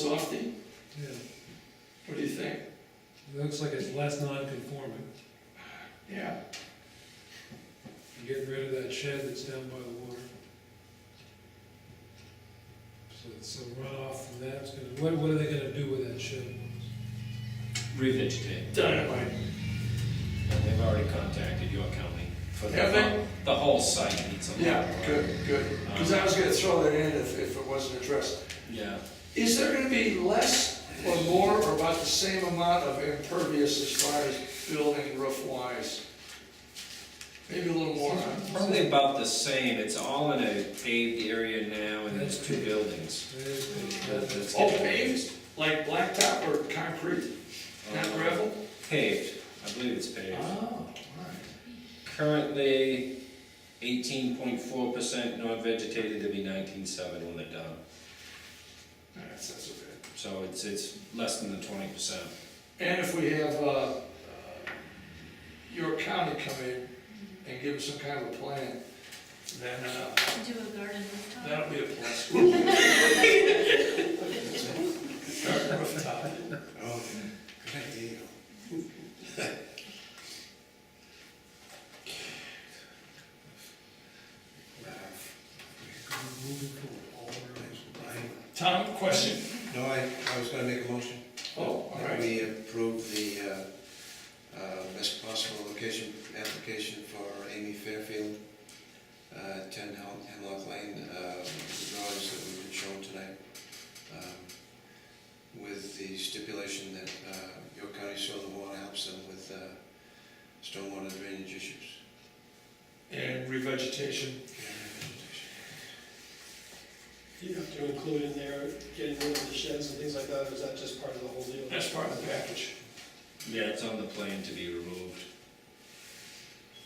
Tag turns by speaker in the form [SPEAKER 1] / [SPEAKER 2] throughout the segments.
[SPEAKER 1] softy?
[SPEAKER 2] Yeah,
[SPEAKER 1] What do you think?
[SPEAKER 2] it looks like it's less non-conforming.
[SPEAKER 1] Yeah,
[SPEAKER 2] You Get rid of that shed that's down by the water. So so runoff from that's gonna, what, what are they gonna do with that shed?
[SPEAKER 3] revegetate.
[SPEAKER 1] dynamite.
[SPEAKER 3] And they've already contacted York County for the,
[SPEAKER 1] Have they?
[SPEAKER 3] the whole site needs a lot.
[SPEAKER 1] Yeah, good, good. Because I was gonna throw that in if, if it wasn't addressed.
[SPEAKER 3] Yeah,
[SPEAKER 1] Is there gonna be less or more or about the same amount of impervious as far as building roof wise? Maybe a little more, huh?
[SPEAKER 3] probably about the same, it's all in a paved area now and there's two buildings. That- that's
[SPEAKER 1] Oh,
[SPEAKER 3] getting-
[SPEAKER 1] paved, like blacktop or concrete, not
[SPEAKER 3] Uh,
[SPEAKER 1] gravel?
[SPEAKER 3] Paved, I believe it's
[SPEAKER 1] Oh,
[SPEAKER 3] paved.
[SPEAKER 1] all
[SPEAKER 3] Currently eighteen point four percent non-vegetated, it'll be nineteen seven when they're done.
[SPEAKER 1] right. That's, that's okay.
[SPEAKER 3] So it's, it's less than the twenty percent.
[SPEAKER 1] And if we have, uh, uh, your county come in and give us some kind of a plan, then, uh,
[SPEAKER 4] Do a garden rooftop?
[SPEAKER 1] that'll be a plus. Start rooftop.
[SPEAKER 5] Oh, good idea.
[SPEAKER 2] Moving forward, all around.
[SPEAKER 5] I-
[SPEAKER 1] Tom, question?
[SPEAKER 5] No, I, I was gonna make a motion.
[SPEAKER 1] Oh, all
[SPEAKER 5] That
[SPEAKER 1] right.
[SPEAKER 5] We approve the, uh, uh, best possible location, application for Amy Fairfield, uh, ten Hem- Hemlock Lane, uh, the drawings that we've been shown tonight. um, With the stipulation that, uh, York County Soil and Water helps them with, uh, stormwater drainage issues.
[SPEAKER 1] And revegetation.
[SPEAKER 6] Do you have to include in there getting rid of the sheds and things like that, or is that just part of the whole deal?
[SPEAKER 1] That's part of the package.
[SPEAKER 3] Yeah, it's on the plan to be removed.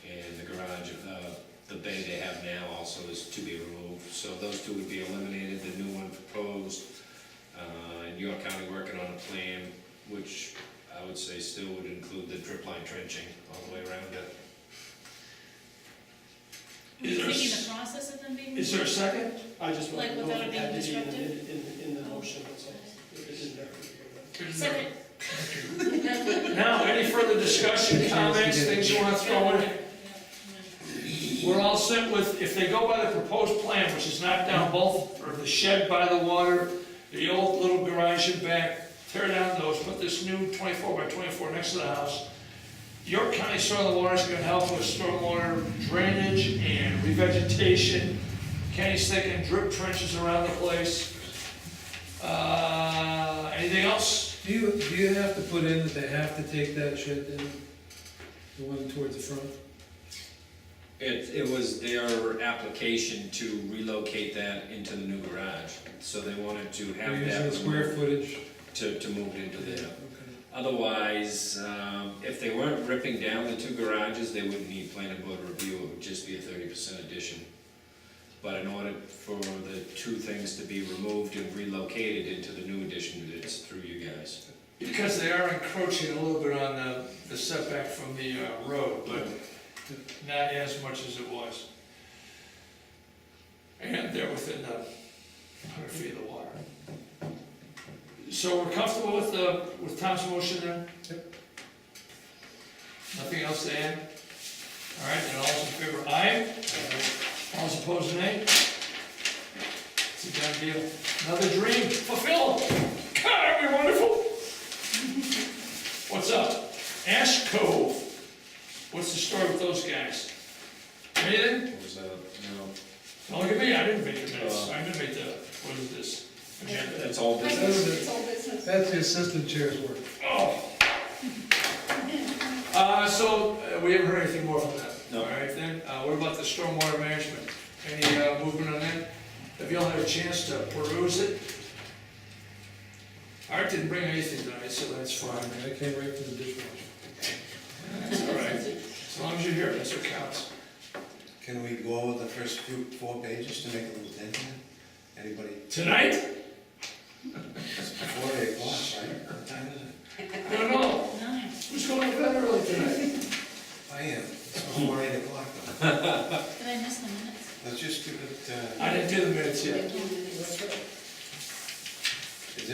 [SPEAKER 3] And the garage, uh, the bay they have now also is to be removed, so those two would be eliminated, the new one proposed. Uh, and York County working on a plan, which I would say still would include the drip line trenching all the way around it.
[SPEAKER 4] Were you thinking the process of them being?
[SPEAKER 1] Is there a second?
[SPEAKER 6] I just want
[SPEAKER 4] Like,
[SPEAKER 6] to know
[SPEAKER 4] without
[SPEAKER 6] if
[SPEAKER 4] it
[SPEAKER 6] it
[SPEAKER 4] being
[SPEAKER 6] had to be in,
[SPEAKER 4] disruptive?
[SPEAKER 6] in, in the
[SPEAKER 4] Oh.
[SPEAKER 6] motion, that's all. If it didn't have to be.
[SPEAKER 4] Second.
[SPEAKER 1] Now, any further discussion, comments, things you want to throw in? We're all set with, if they go by the proposed plan, which is knock down both, or the shed by the water, the old little garage in back, tear down those, put this new twenty-four by twenty-four next to the house. York County Soil and Water is gonna help with stormwater drainage and revegetation. Kenny's thinking drip trenches around the place. Uh, anything else?
[SPEAKER 2] Do you, do you have to put in that they have to take that shed down? The one towards the front?
[SPEAKER 3] It, it was their application to relocate that into the new garage, so they wanted to
[SPEAKER 2] They're
[SPEAKER 3] have
[SPEAKER 2] using
[SPEAKER 3] that
[SPEAKER 2] the square
[SPEAKER 3] removed
[SPEAKER 2] footage?
[SPEAKER 3] to, to move it into there.
[SPEAKER 2] Okay.
[SPEAKER 3] Otherwise, um, if they weren't ripping down the two garages, they wouldn't need planning board review, it would just be a thirty percent addition. But in order for the two things to be removed and relocated into the new addition, it's through you guys.
[SPEAKER 1] Because they are encroaching a little bit on the, the setback from the, uh, road, but not as much as it was. And they're within the hundred feet of the water. So we're comfortable with the, with Tom's motion then? Yep. Nothing else to add? All right, then all those in favor, aye? All those opposed, nay? It's a done deal. Another dream fulfilled. God, that'd be wonderful. What's up? Ash Cove. What's the story with those guys? Anything?
[SPEAKER 3] What was that? No,
[SPEAKER 1] Don't look at me, I didn't make the minutes. I didn't make the, what is this? Agenda.
[SPEAKER 3] that's all business.
[SPEAKER 4] It's all business.
[SPEAKER 2] That's the assistant chair's work.
[SPEAKER 1] Oh. Uh, so, uh, we haven't heard anything more from them.
[SPEAKER 3] No.
[SPEAKER 1] All right then, uh, what about the stormwater management? Any, uh, movement on that? Have y'all had a chance to peruse it? Art didn't bring anything tonight, so that's fine.
[SPEAKER 2] I came right from the dishwasher.
[SPEAKER 1] That's all right. As long as you're here, that's what counts.
[SPEAKER 5] Can we go over the first few, four pages to make a little dent in it? Anybody,
[SPEAKER 1] Tonight?
[SPEAKER 5] it's before eight o'clock, right? What time is it?
[SPEAKER 1] I don't know.
[SPEAKER 4] Nine.
[SPEAKER 1] Who's going to bed early tonight?
[SPEAKER 5] I am, it's before eight o'clock. though.
[SPEAKER 4] Did I miss the minutes?
[SPEAKER 5] Let's just give it, uh,
[SPEAKER 1] I didn't do the minutes yet.